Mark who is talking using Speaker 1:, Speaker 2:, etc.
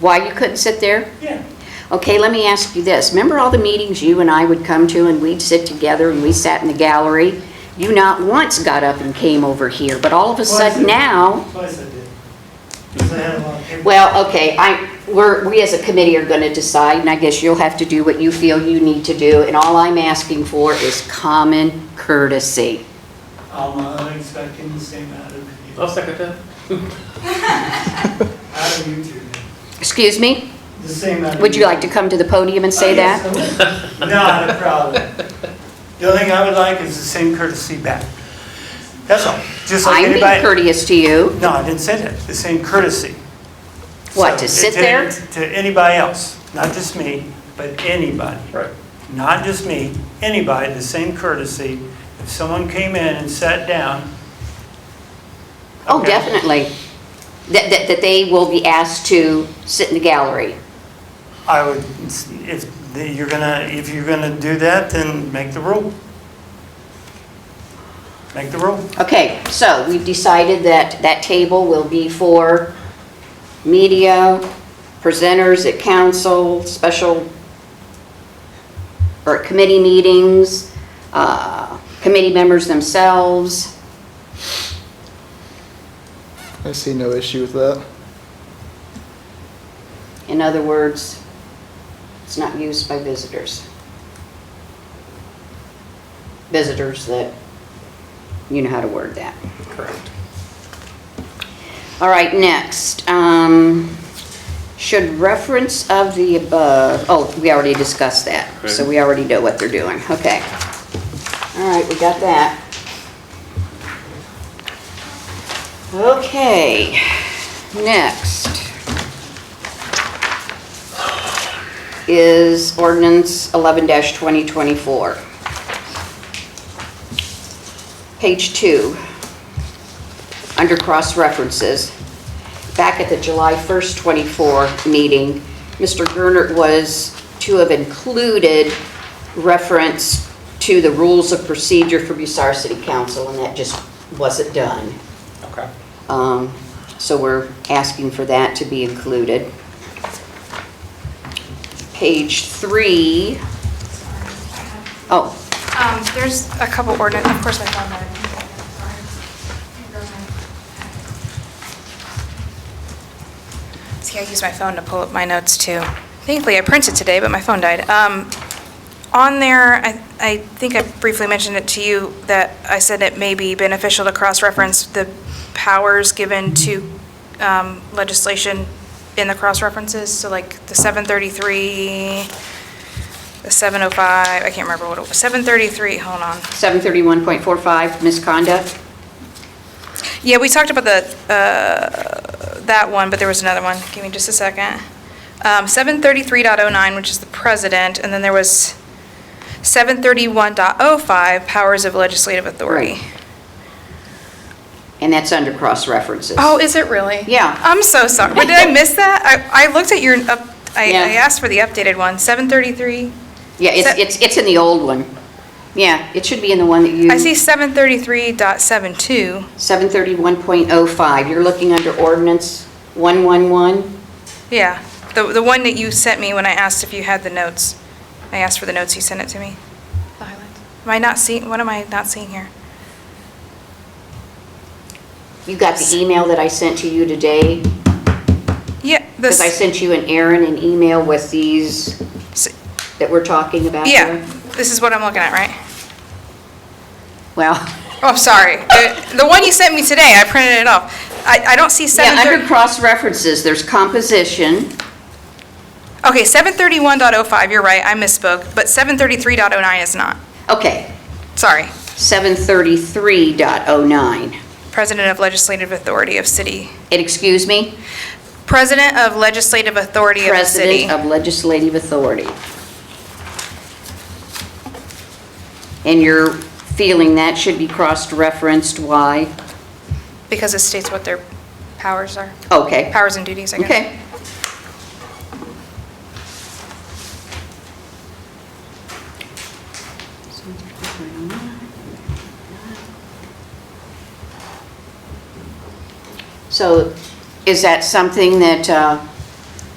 Speaker 1: why you couldn't sit there?
Speaker 2: Yeah.
Speaker 1: Okay, let me ask you this. Remember all the meetings you and I would come to and we'd sit together and we sat in the gallery? You not once got up and came over here, but all of a
Speaker 2: Twice I
Speaker 1: sudden
Speaker 2: did.
Speaker 1: now,
Speaker 2: Twice I did. Because I had a lot of paper.
Speaker 1: well, okay, I, we're, we as a committee are gonna decide and I guess you'll have to do what you feel you need to do. And all I'm asking for is common courtesy.
Speaker 2: I'm not expecting the same out of you.
Speaker 3: I'll second that.
Speaker 2: Out of you two.
Speaker 1: Excuse me?
Speaker 2: The same out of you.
Speaker 1: Would you like to come to the podium and
Speaker 2: Uh,
Speaker 1: say that?
Speaker 2: Not a problem. The only thing I would like is the same courtesy back. That's all. Just like
Speaker 1: I'm being
Speaker 2: anybody.
Speaker 1: courteous to you.
Speaker 2: No, I didn't say that. The same courtesy.
Speaker 1: What,
Speaker 2: So,
Speaker 1: to sit there?
Speaker 2: To anybody else, not just me, but anybody.
Speaker 3: Right.
Speaker 2: Not just me, anybody, the same courtesy. If someone came in and sat down.
Speaker 1: Oh,
Speaker 2: Okay.
Speaker 1: definitely. That, that, that they will be asked to sit in the gallery.
Speaker 2: I would, if you're gonna, if you're gonna do that, then make the rule. Make the rule.
Speaker 1: Okay, so we've decided that that table will be for media, presenters at council, special, or committee meetings, uh, committee members themselves.
Speaker 4: I see no issue with that.
Speaker 1: In other words, it's not used by visitors. Visitors that, you know how to word that.
Speaker 3: Correct.
Speaker 1: All right, next, um, should reference of the above, oh, we already discussed that, so
Speaker 3: Okay.
Speaker 1: we already know what they're doing, okay. All right, we got that. Okay, next is ordinance eleven twenty twenty-four. Page two under cross-references. Back at the July 1st, 24 meeting, Mr. Gernert was to have included reference to the rules of procedure for Bussar City Council, and that just wasn't done.
Speaker 3: Okay.
Speaker 1: Um, So we're asking for that to be included. Page three. Oh,
Speaker 5: Um, there's a couple ordinance, of course I found that. See, I use my phone to pull up my notes too. Thankfully, I printed today, but my phone died. Um, on there, I, I think I briefly mentioned it to you, that I said it may be beneficial to cross-reference the powers given to um, legislation in the cross-references, so like the 733, the 705, I can't remember what it was, 733, hold on.
Speaker 1: 731.45, misconduct.
Speaker 5: Yeah, we talked about the, uh, that one, but there was another one. Give me just a second. Um, 733.09, which is the president, and then there was 731.05, powers of legislative authority.
Speaker 1: Right. And that's under cross-references.
Speaker 5: Oh, is it really?
Speaker 1: Yeah.
Speaker 5: I'm so sorry. But did I miss that? I, I looked at your, up- I,
Speaker 1: Yeah.
Speaker 5: I asked for the updated one, 733.
Speaker 1: Yeah, it's,
Speaker 5: So-
Speaker 1: it's, it's in the old one. Yeah, it should be in the one that you.
Speaker 5: I see 733.72.
Speaker 1: 731.05, you're looking under ordinance 111?
Speaker 5: Yeah, the, the one that you sent me when I asked if you had the notes. I asked for the notes, you sent it to me. The highlights. Am I not seeing, what am I not seeing here?
Speaker 1: You got the email that I sent to you today?
Speaker 5: Yeah,
Speaker 1: Because I
Speaker 5: this,
Speaker 1: sent you and Aaron an email with these
Speaker 5: s-
Speaker 1: that we're talking about
Speaker 5: yeah,
Speaker 1: here?
Speaker 5: this is what I'm looking at, right?
Speaker 1: Well,
Speaker 5: Oh, I'm sorry. The- The one you sent me today, I printed it off. I, I don't see
Speaker 1: yeah,
Speaker 5: seven
Speaker 1: under
Speaker 5: thirty,
Speaker 1: cross-references, there's composition,
Speaker 5: okay, seven thirty-one point oh five, you're right, I misspoke, but seven thirty-three point oh nine is not.
Speaker 1: okay,
Speaker 5: Sorry.
Speaker 1: 733.09.
Speaker 5: President of Legislative Authority of City.
Speaker 1: And excuse me?
Speaker 5: President of Legislative Authority of the City.
Speaker 1: President of Legislative Authority. And you're feeling that should be cross-referenced, why?
Speaker 5: Because it states what their powers are,
Speaker 1: Okay.
Speaker 5: powers and duties, I guess.
Speaker 1: Okay. So is that something that uh,